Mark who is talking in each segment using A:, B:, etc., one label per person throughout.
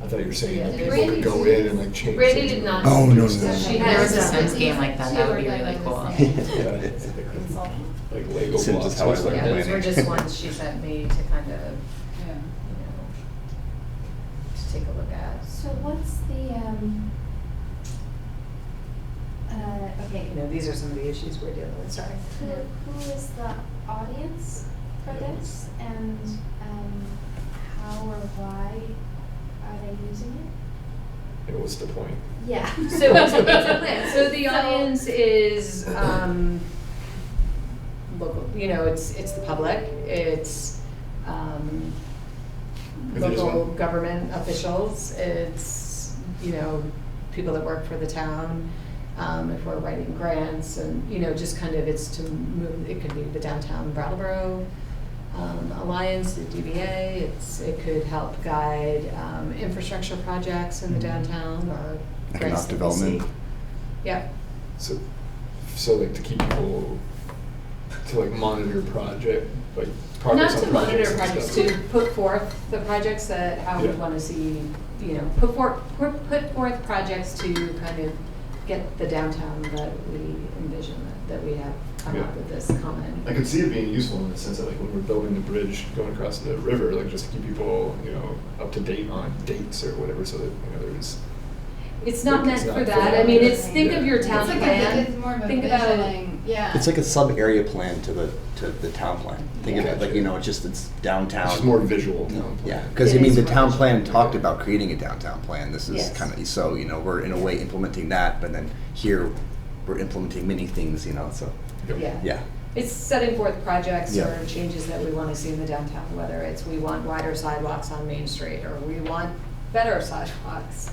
A: I thought you were saying that
B: Yeah.
A: people could go in and like change.
B: Brandy
A: it.
B: did not.
C: Oh, no, no, no.
B: She
C: If
D: there
B: has
D: was a
B: done-
D: Sims game like that,
B: she
D: that would be
B: worked
D: really
B: on
D: cool.
B: this.
A: Yeah, it's like-
B: It's all-
A: Like Lego blocks.
E: Sims is how I
A: it's like
E: learned
B: Yeah, those
E: planning.
B: were just ones she sent me to kind of,
F: Yeah.
B: you know, to take a look at.
G: So what's the, um, uh, okay,
F: You know, these are some of the issues we're dealing with, sorry.
G: who, who is the audience for this and, um, how or why are they using it?
A: And what's the point?
G: Yeah.
B: So it's a, it's a plan. So the audience is um, local. You know, it's it's the public. It's um,
A: If there's
B: local
A: one-
B: government officials. It's you know people that work for the town. Um, if we're writing grants and you know just kind of it's to move. It could be the downtown Brattleboro um, Alliance, the DBA. It's it could help guide um, infrastructure projects in the downtown or grants
C: Mm-hmm. Economic
B: that we see.
C: development.
B: Yep.
A: So, so like to keep people, to like monitor project, like progress
B: Not
A: on
B: to monitor
A: projects
B: projects,
A: and
B: to
A: stuff.
B: put forth the projects that, how we
A: Yeah.
B: want to see, you know, put forth, put forth projects to kind of get the downtown that we envision, that- that we have come
A: Yeah.
B: up with this common.
A: I could see it being useful in the sense that like when we're building the bridge going across the river, like just to keep people, you know, up to date on dates or whatever, so that, you know, there's,
B: It's not meant
A: It's not
B: for
A: for
B: that, I
A: that.
B: mean, it's, think of your
A: It's
B: town
A: like a-
B: plan,
D: it's more of a
B: think about it.
D: visualing- yeah.
E: It's like a sub area plan to the to the town plan. Think of it like you know, it's just it's downtown.
A: it's just more visual town plan.
E: Um, Yeah, because I
B: It
E: mean,
B: is
E: the
B: more
E: town
B: visual.
E: plan talked about creating a downtown plan. This is
B: Yes.
E: kind of so you know we're in a way implementing that, but then here we're implementing many things. You know, so
A: Yep.
B: Yeah.
E: yeah,
B: It's setting forth projects
E: Yeah.
B: or changes that we want to see in the downtown, whether it's we want wider sidewalks on Main Street, or we want better sidewalks,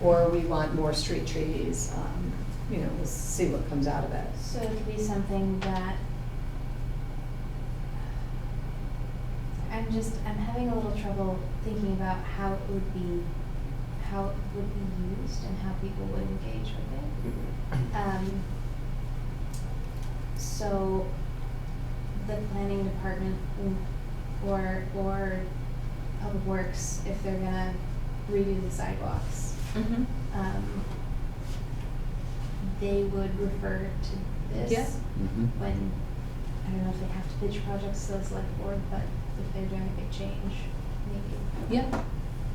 B: or we want more street trees, um, you know, we'll see what comes out of it.
G: So it could be something that I'm just, I'm having a little trouble thinking about how it would be, how it would be used and how people would engage with it. Um, so the planning department mm, or, or public works, if they're gonna redo the sidewalks, um, they would refer to this.
B: Yeah.
E: hmm
G: When, I don't know if they have to pitch projects to the select board, but if they're doing a big change, maybe
B: Yeah,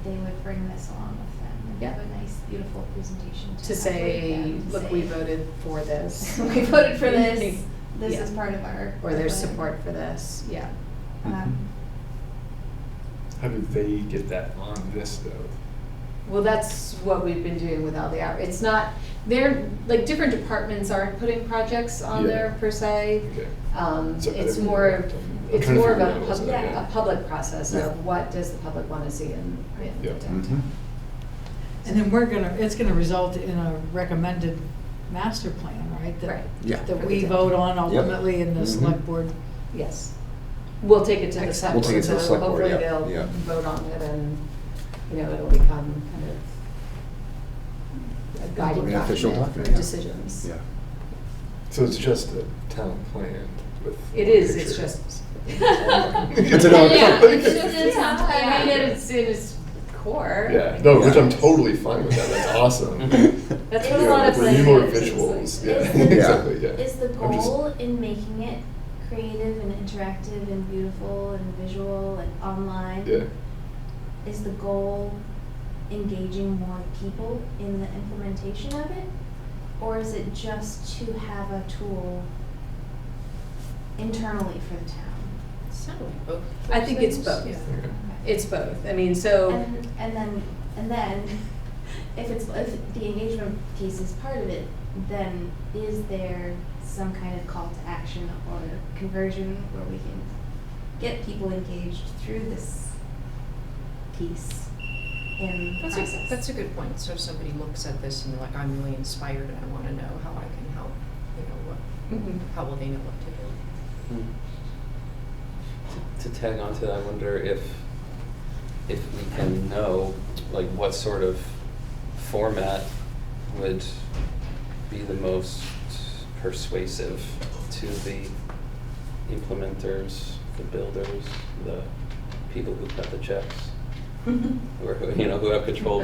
G: they would bring this along with them and have a nice, beautiful presentation to
B: to
G: have
B: say,
G: with them,
B: look,
G: say-
B: we voted for this.
G: we voted for this, this is
B: Yeah.
G: part of our.
B: Or there's support for this, yeah.
G: Um,
A: How do they get that on this though?
B: Well, that's what we've been doing with all the hour. It's not, they're, like, different departments aren't putting projects on
A: Yeah.
B: there per se.
A: Okay.
B: Um,
A: So
B: it's
A: every-
B: more,
A: I'm
B: of it's
A: trying to
B: more of
A: figure
B: a
A: out what's
B: public,
G: that,
A: yeah.
B: a public process
E: Yeah. Mm-hmm.
B: of what does the public want to see in, in the
A: Yeah.
B: downtown.
H: And then we're gonna, it's gonna result in a recommended master plan, right? that-
B: Right.
E: yeah.
H: That we vote on ultimately and
E: Mhm.
H: the select board.
B: Yes. We'll take it to the select
E: We'll take
B: board,
E: it to the
B: so
E: select board,
B: hopefully
E: yeah,
B: they'll
E: yeah.
B: vote on it and, you know, it'll become kind of a guiding
E: An official
B: document
E: document,
B: for
E: yeah.
B: decisions.
E: Yeah.
A: So it's just a town plan with.
B: It is, it's
A: picture.
B: just.
A: It's
E: an old-
B: Yeah, it's just,
D: Yeah.
B: it's, I mean, it is, in its core.
A: Yeah, no, which I'm
B: Yeah.
A: totally fine with that, that's awesome.
B: That's
G: Yeah,
B: what a lot of
A: We
B: places.
A: need more
B: it's like-
A: visuals, yeah,
G: Is
E: the-
A: exactly, yeah.
G: Is the
A: I'm just-
G: goal in making it creative and interactive and beautiful and visual and online?
A: Yeah,
G: Is the goal engaging more people in the implementation of it? Or is it just to have a tool internally for the town?
B: I think it's both.
A: okay.
B: It's both. I mean, so,
G: And, and then, and then, if it's, if the engagement piece is part of it, then is there some kind of call to action or conversion where we can get people engaged through this piece in the
D: That's a,
G: process?
D: that's a good point. So if somebody looks at this and they're like, I'm really inspired and I want to know how I can help, you know, what,
B: mhm.
D: how will they know what to do?
I: Hmm. To tag onto that, I wonder if, if we can know, like, what sort of format would be the most persuasive to the implementers, the
B: mm-hmm.
I: builders, the people who cut the checks, or, who you know, who have control